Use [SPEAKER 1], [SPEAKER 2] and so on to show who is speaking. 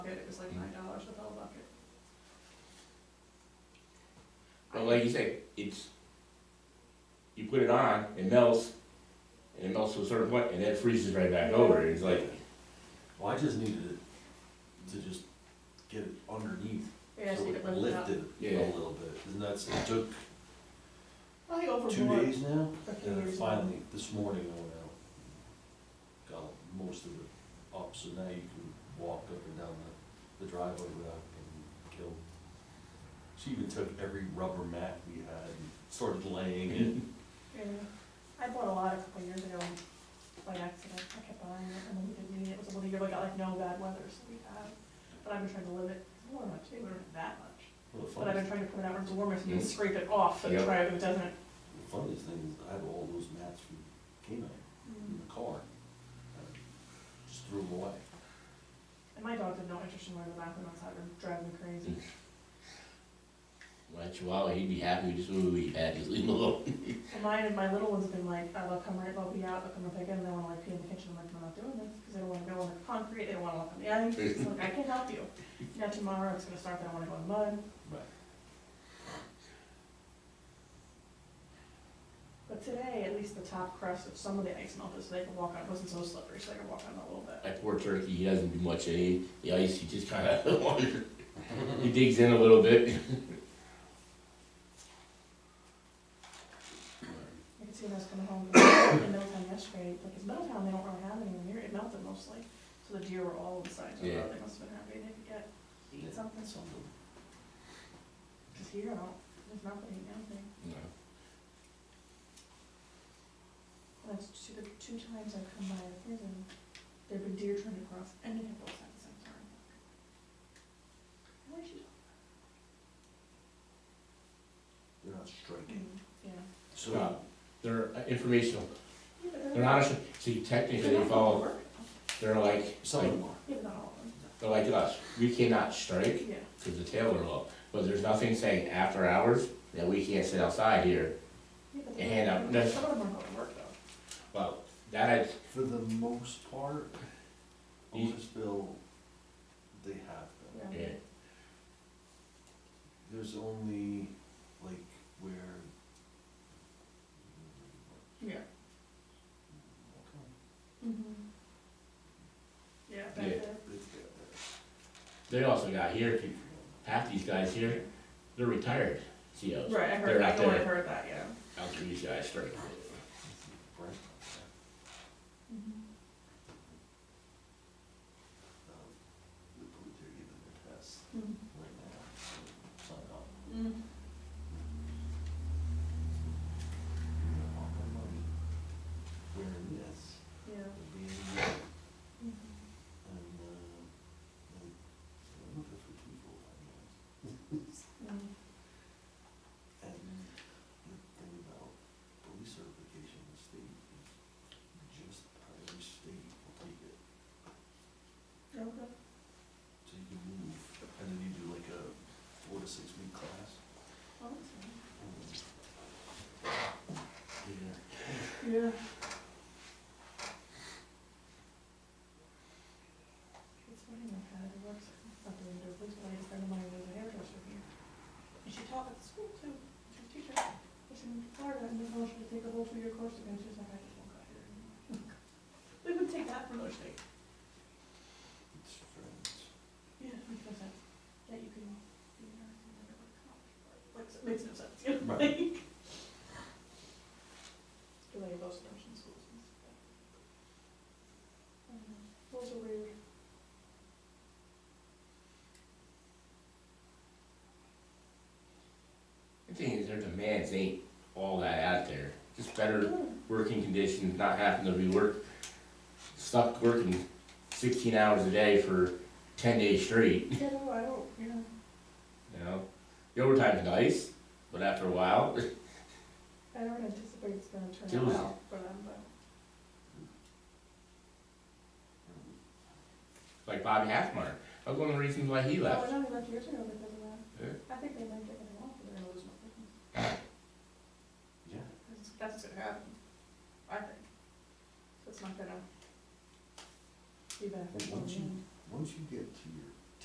[SPEAKER 1] seventy-nine dollars a bell bucket.
[SPEAKER 2] But like you say, it's, you put it on, it melts, and it melts to a certain point, and then freezes right back over, and it's like,
[SPEAKER 3] Well, I just needed it to just get it underneath,
[SPEAKER 1] Yeah,
[SPEAKER 3] so
[SPEAKER 1] so you
[SPEAKER 3] it
[SPEAKER 1] could lift it up.
[SPEAKER 3] lifted
[SPEAKER 2] Yeah.
[SPEAKER 3] a little bit, and that's, it took
[SPEAKER 1] I think
[SPEAKER 3] two
[SPEAKER 1] overboard.
[SPEAKER 3] days now,
[SPEAKER 1] a few
[SPEAKER 3] and then
[SPEAKER 1] years
[SPEAKER 3] finally, this morning, I went out. Got most of it up, so now you can walk up and down the, the driveway without getting killed. She even took every rubber mat we had and started laying it,
[SPEAKER 1] Yeah, I bought a lot a couple years ago by accident. I kept buying it and then we didn't need it. It was one year we got like no bad weather, so we had it. But I've been trying to live it. It's warm much, it wasn't that much.
[SPEAKER 3] well, the
[SPEAKER 1] But I've been
[SPEAKER 3] funniest,
[SPEAKER 1] trying to put it out where it's warmer so you can
[SPEAKER 2] Mm.
[SPEAKER 1] scrape it off and
[SPEAKER 2] Yep.
[SPEAKER 1] try it if it doesn't.
[SPEAKER 3] the funniest thing is, I have all those mats from K-9
[SPEAKER 1] Mm.
[SPEAKER 3] in the car, I just threw them away.
[SPEAKER 1] And my dog had no interest in wearing the bathroom outside or driving me crazy.
[SPEAKER 2] my chihuahua, he'd be happy with just what we had, just leave him alone.
[SPEAKER 1] And mine and my little one's been like, oh, they'll come right, they'll be out, they'll come and pick it, and they wanna like pee in the kitchen, I'm like, I'm not doing this, because they don't wanna go on the concrete, they don't wanna walk on the ice, it's like, I can't help you. Now tomorrow, it's gonna start, they don't wanna go in mud,
[SPEAKER 3] Right.
[SPEAKER 1] but today, at least the top crust of some of the ice melted, so they could walk on, it wasn't so slippery, so they could walk on it a little bit.
[SPEAKER 2] That poor turkey, he doesn't do much of any, the ice, he just kinda wanders, he digs in a little bit.
[SPEAKER 1] You could see when I was coming home from- in Middletown yesterday, like, it's Middletown, they don't really have any near, it melted mostly, so the deer were all inside, so
[SPEAKER 2] Yeah.
[SPEAKER 1] they must have been happy they could get, eat something,
[SPEAKER 3] Something.
[SPEAKER 1] because here, I don't, there's nothing, anything.
[SPEAKER 2] No.
[SPEAKER 1] That's two, the two times I've come by the prison, there've been deer trying to cross and they have both at the same time. Why should?
[SPEAKER 3] They're not striking.
[SPEAKER 1] Yeah.
[SPEAKER 3] So,
[SPEAKER 2] No. They're uh, informational,
[SPEAKER 1] Yeah, but
[SPEAKER 2] they're not, a- so you technically they follow, they're like,
[SPEAKER 3] some of
[SPEAKER 2] like,
[SPEAKER 3] them are.
[SPEAKER 1] Yeah, but not all of them.
[SPEAKER 2] they're like us, we cannot strike
[SPEAKER 1] Yeah.
[SPEAKER 2] because the tail are low. But there's nothing saying after hours that we can't sit outside here.
[SPEAKER 1] Yeah, but
[SPEAKER 2] Your hand up.
[SPEAKER 1] they- Some of them aren't going to work though.
[SPEAKER 2] Well, that I,
[SPEAKER 3] For the most part,
[SPEAKER 2] You-
[SPEAKER 3] Otisville, they have them.
[SPEAKER 2] yeah,
[SPEAKER 3] There's only, like, where.
[SPEAKER 1] Yeah. Mm-hmm. Yeah, back
[SPEAKER 2] Yeah.
[SPEAKER 1] there.
[SPEAKER 3] It's got
[SPEAKER 2] they also got
[SPEAKER 3] that.
[SPEAKER 2] here, half these guys here, they're retired COs.
[SPEAKER 1] Right, I
[SPEAKER 2] They're
[SPEAKER 1] heard, I
[SPEAKER 2] not
[SPEAKER 1] know I
[SPEAKER 2] there.
[SPEAKER 1] heard that, yeah.
[SPEAKER 2] Out there, these guys strike.
[SPEAKER 3] Brent,
[SPEAKER 1] Mhm.
[SPEAKER 3] um, The police are giving their tests
[SPEAKER 1] Mhm.
[SPEAKER 3] right now, so sign up.
[SPEAKER 1] Mm.
[SPEAKER 3] You're gonna want my money. Wearing this,
[SPEAKER 1] Yeah.
[SPEAKER 3] and being there.
[SPEAKER 1] Mhm.
[SPEAKER 3] And, uh, like, I'm looking for two full time jobs.
[SPEAKER 1] Mm.
[SPEAKER 3] And the thing about police certification in the state is just how every state will take it.
[SPEAKER 1] Okay.
[SPEAKER 3] So you can move, and then you do like a four to six week class. Um,
[SPEAKER 1] Well, that's nice.
[SPEAKER 3] Yeah.
[SPEAKER 1] Yeah. It's funny, my dad who works, not doing their books, but I had a friend of mine who was a hairdresser here. And she taught at the school too, she's a teacher, but she's in Florida, and they told her to take a whole two-year course again, she's like, I just won't go here anymore. We would take that from those things.
[SPEAKER 3] It's friends.
[SPEAKER 1] Yeah, it makes no sense, that you can be a nurse and never go to college, or- like, it makes no sense, you know,
[SPEAKER 3] Right.
[SPEAKER 1] like. Do they have those nursing schools and stuff? I don't know, those are weird.
[SPEAKER 2] The thing is, their demands ain't all that out there. Just better working conditions, not having to be work, stuck working sixteen hours a day for ten days straight.
[SPEAKER 1] Yeah, no, I don't, you know,
[SPEAKER 2] You know, the overtime's nice, but after a while,
[SPEAKER 1] I don't anticipate it's gonna turn out
[SPEAKER 2] Jealousy.
[SPEAKER 1] well for them, but.
[SPEAKER 3] Um,
[SPEAKER 2] like Bobby Halfmeyer, that's one of the reasons why he left.
[SPEAKER 1] Oh, no, he left years ago because of that.
[SPEAKER 2] Yeah.
[SPEAKER 1] I think they might get it off, but they're gonna lose more business.
[SPEAKER 3] Yeah.
[SPEAKER 1] That's- That's what's gonna happen, I think. So It's not gonna be beneficial. in the
[SPEAKER 3] once you-
[SPEAKER 1] end.
[SPEAKER 3] Once you get to your